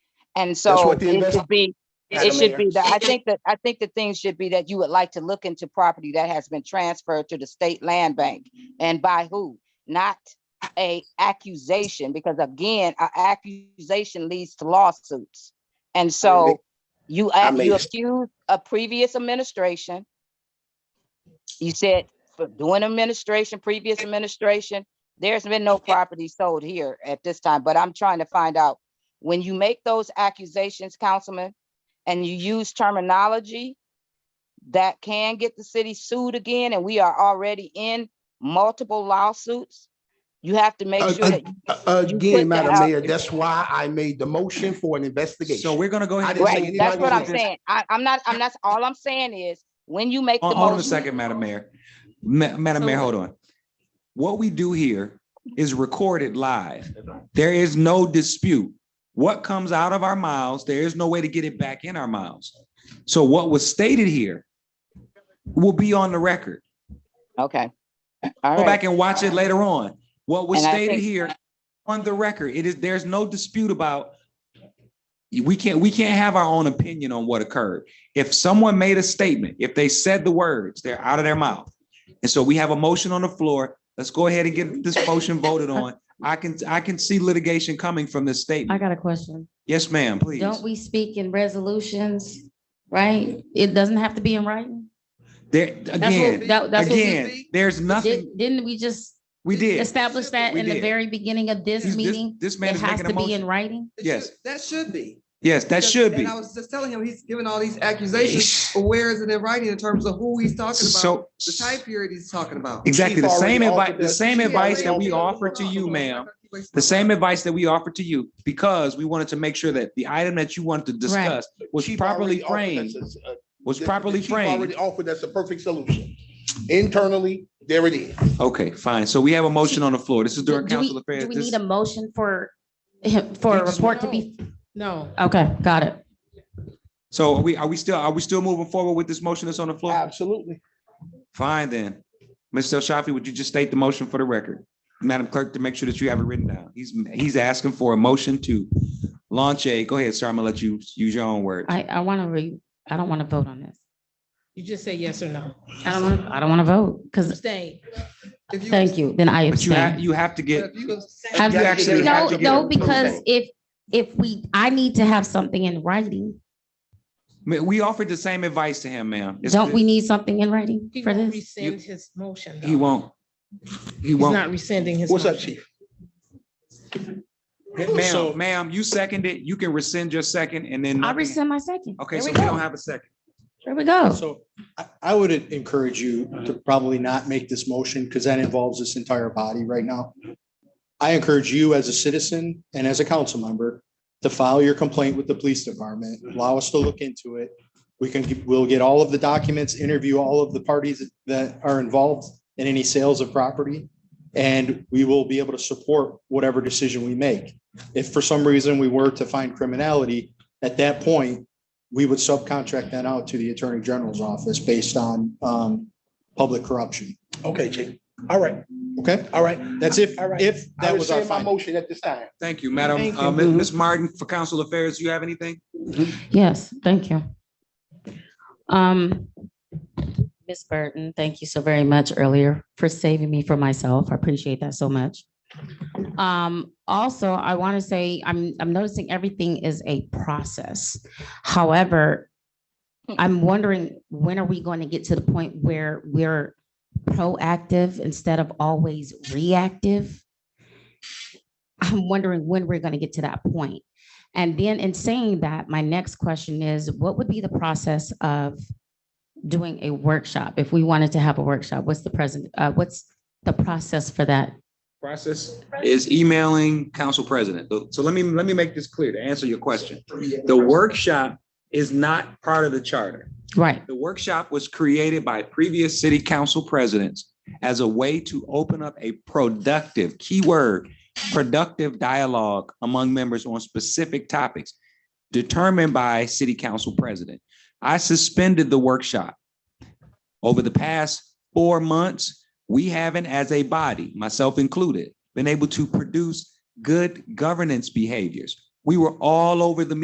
And That's so what the it should investment- be, it Madam should Mayor. be that, I think that, I think the thing should be that you would like to look into property that has been transferred to the state land bank and by who, not a accusation, because again, a accusation leads to lawsuits. And so you, I ac- made you a- accused a previous administration. You said for doing administration, previous administration, there's been no property sold here at this time, but I'm trying to find out when you make those accusations, Councilman, and you use terminology that can get the city sued again, and we are already in multiple lawsuits, you have to make Uh, sure that, uh, you Again, put that Madam out. Mayor, that's why I made the motion for an investigation. So we're gonna go I ahead. and didn't say right, take- anything that's what I'm about this. saying. I, I'm not, I'm not, all I'm saying is, when you make the Hold hold on a motion, second, Madam Mayor. Ma- Madam Mayor, hold on. What we do here is recorded live. There is no dispute. What comes out of our mouths, there is no way to get it back in our mouths. So what was stated here will be on the record. okay. All Go right. back and watch it later on. What was And I stated think- here on the record, it is, there's no dispute about we can't, we can't have our own opinion on what occurred. If someone made a statement, if they said the words, they're out of their mouth. And so we have a motion on the floor. Let's go ahead and get this motion voted on. I can, I can see litigation coming from this I statement. got a question. Yes, ma'am, please. Don't we speak in resolutions, right? It doesn't have to be in writing? There, That's what- again, that- that's what we- again, there's nothing, Did- Didn't we just we did. establish that We in the did. very beginning of this This- meeting? This man It is has making to a be in motion. writing? It Yes. should- That should be. Yes, that Because- should be. And I was just telling him, he's giving all these accusations, but where is it in writing in terms of who he's talking about? So, The time period he's talking about. Exactly, the Chief same already advice, offered the that- same Chief advice that already we offered offered to you, ma'am, Wasting my the same time. advice that we offered to you, because we wanted to make sure that the item that you wanted to discuss was Chief properly already offered framed, us a- a- was the- the properly chief framed. Already offered us a perfect solution. Internally, there it is. Okay, fine, so we have a motion on the floor, this is Do during do we, council do affairs. we This- need a motion for, him- for a Yes. report to be? No. Okay, got it. So are we, are we still, are we still moving forward with this motion that's on the floor? Absolutely. Fine then, Mr. Shafi, would you just state the motion for the record? Madam Clerk, to make sure that you have it written down, he's, he's asking for a motion to launch a, go ahead, sir, I'm gonna let you use your own word. I, I want to re, I don't want to vote on this. You just say yes or no. I don't, wanna- I don't want to vote because, Abstain. If you- thank you, then I But you have, abstain. you have to but get, if you go- Have- You gotta actually get it- No, have to get no, it. because if, if we, I need to have something in writing. Ma- we offered the same advice to him, ma'am. It's- Don't we need something in writing He for won't this? rescind his motion. He though. won't. He He's won't. not rescinding his. What's up, motion. chief? So- Ma'am, ma'am, you seconded, you can rescind your second and then. I nothing- rescind my second. Okay, There so we we don't go. have a second. There we go. So I, I would encourage you to probably not make this motion because that involves this entire body right now. I encourage you as a citizen and as a council member to file your complaint with the police department, allow us to look into it. We can, get- we'll get all of the documents, interview all of the parties that are involved in any sales of property. And we will be able to support whatever decision we make. If for some reason we were to find criminality, at that point, we would subcontract that out to the Attorney General's office based on um public corruption. Okay, chief. All right, Okay, all right. that's if, All right. if I that was our rescind my finding. motion at this time. Thank you, Madam, Thank uh, you. Ms. Martin, for council affairs, do you have anything? Yes, thank you. Um, Ms. Burton, thank you so very much earlier for saving me from myself. I appreciate that so much. Um, also, I want to say, I'm, I'm noticing everything is a process. However, I'm wondering, when are we going to get to the point where we're proactive instead of always reactive? I'm wondering when we're going to get to that point. And then in saying that, my next question is, what would be the process of doing a workshop? If we wanted to have a workshop, what's the present, uh, what's the process for that? Process is emailing council president. So- So let me, let me make this clear to answer your question. The workshop is not part of the charter. Right, The workshop was created by previous city council presidents as a way to open up a productive, keyword, productive dialogue among members on specific topics determined by city council president. I suspended the workshop. Over the past four months, we haven't, as a body, myself included, been able to produce good governance behaviors. We were all over the